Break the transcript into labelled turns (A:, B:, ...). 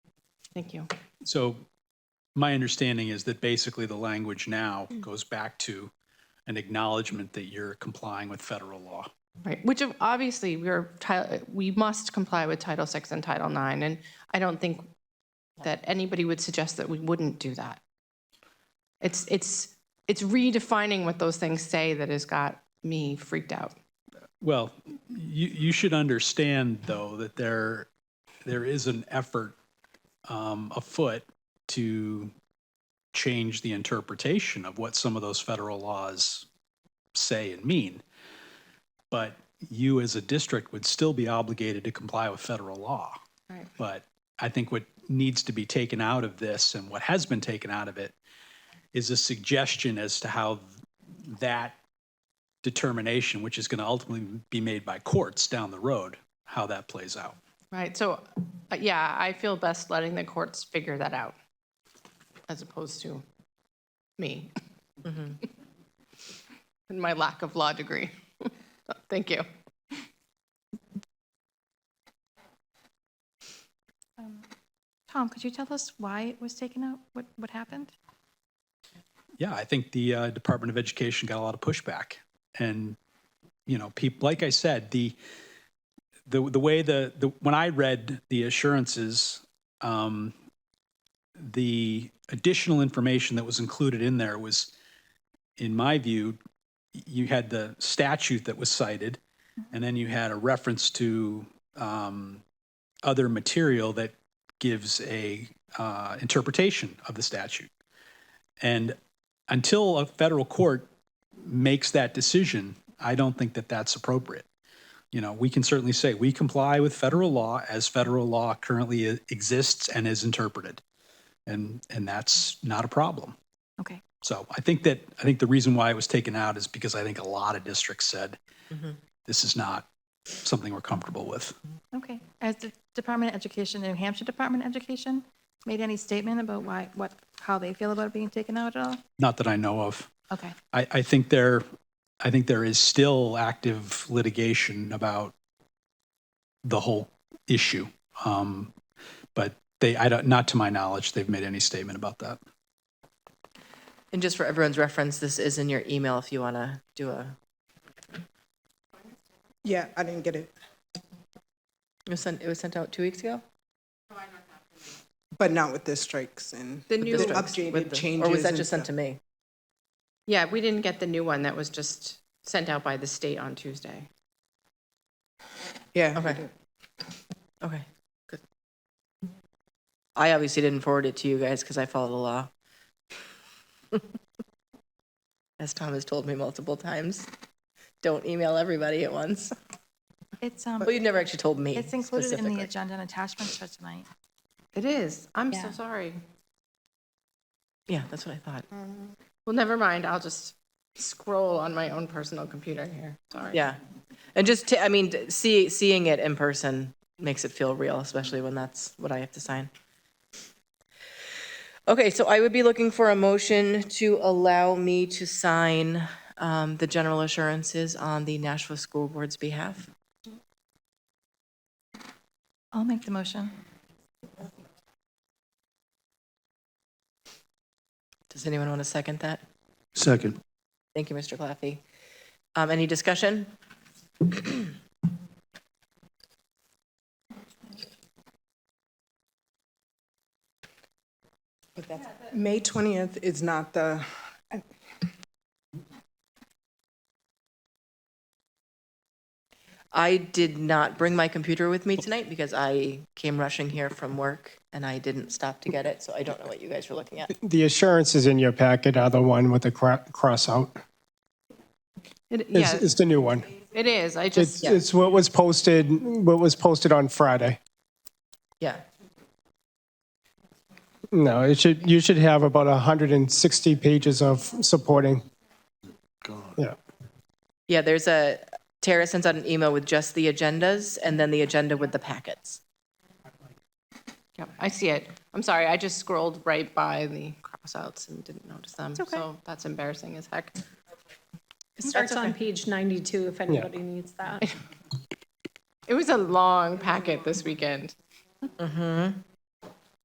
A: Thank you.
B: So my understanding is that basically the language now goes back to an acknowledgement that you're complying with federal law.
A: Right, which of- obviously we are, ti- we must comply with Title VI and Title IX, and I don't think that anybody would suggest that we wouldn't do that. It's, it's, it's redefining what those things say that has got me freaked out.
B: Well, you, you should understand, though, that there, there is an effort um, afoot to change the interpretation of what some of those federal laws say and mean. But you, as a district, would still be obligated to comply with federal law.
A: Right.
B: But I think what needs to be taken out of this and what has been taken out of it is a suggestion as to how that determination, which is going to ultimately be made by courts down the road, how that plays out.
A: Right, so, uh, yeah, I feel best letting the courts figure that out as opposed to me. And my lack of law degree. Thank you.
C: Tom, could you tell us why it was taken out? What, what happened?
B: Yeah, I think the uh, Department of Education got a lot of pushback, and you know, people like I said, the the the way the the when I read the assurances, um, the additional information that was included in there was, in my view, you had the statute that was cited, and then you had a reference to um, other material that gives a uh, interpretation of the statute. And until a federal court makes that decision, I don't think that that's appropriate. You know, we can certainly say we comply with federal law as federal law currently i- exists and is interpreted. And, and that's not a problem.
C: Okay.
B: So I think that, I think the reason why it was taken out is because I think a lot of districts said, this is not something we're comfortable with.
C: Okay. Has the Department of Education, the New Hampshire Department of Education, made any statement about why, what, how they feel about it being taken out at all?
B: Not that I know of.
C: Okay.
B: I, I think there, I think there is still active litigation about the whole issue. Um, but they, I don't, not to my knowledge, they've made any statement about that.
D: And just for everyone's reference, this is in your email if you want to do a,
E: Yeah, I didn't get it.
D: it was sent, it was sent out two weeks ago?
E: But not with the strikes and
A: The new,
D: Districts
E: updated
D: with the- Or was
E: changes
D: that
E: and
D: just sent to
E: stuff.
D: me?
A: yeah, we didn't get the new one that was just sent out by the state on Tuesday.
E: yeah.
D: Okay. Okay, good. I obviously didn't forward it to you guys because I follow the law. As Tom has told me multiple times, don't email everybody at once.
C: It's, um,
D: Well, you've never actually told me
C: it's included in the
D: specifically.
C: agenda and attachments for tonight.
A: It is. I'm so
C: Yeah.
A: sorry.
D: Yeah, that's what I thought.
A: Well, never mind. I'll just scroll on my own personal computer here. Sorry.
D: Yeah. And just, ta- I mean, d- see, seeing it in person makes it feel real, especially when that's what I have to sign. Okay, so I would be looking for a motion to allow me to sign um, the general assurances on the Nashville School Board's behalf.
C: I'll make the motion.
D: Does anyone want to second that?
F: Second.
D: Thank you, Mr. Claffey. Um, Any discussion?
E: May 20th is not the,
D: I did not bring my computer with me tonight because I came rushing here from work and I didn't stop to get it, so I don't know what you guys were looking at.
G: The assurances in your packet are the one with the cra- cross out.
A: It,
G: It's,
A: yeah,
G: it's the new one.
A: it is. I
G: It's,
A: just,
G: it's what was posted, what was posted on Friday.
D: Yeah.
G: No, it should, you should have about 160 pages of supporting. Yeah.
D: Yeah, there's a, Tara sends out an email with just the agendas and then the agenda with the packets.
A: yep, I see it. I'm sorry. I just scrolled right by the crossouts and didn't notice them.
C: okay.
A: So that's embarrassing as heck.
H: It starts on page 92 if anybody needs that.
A: It was a long packet this weekend.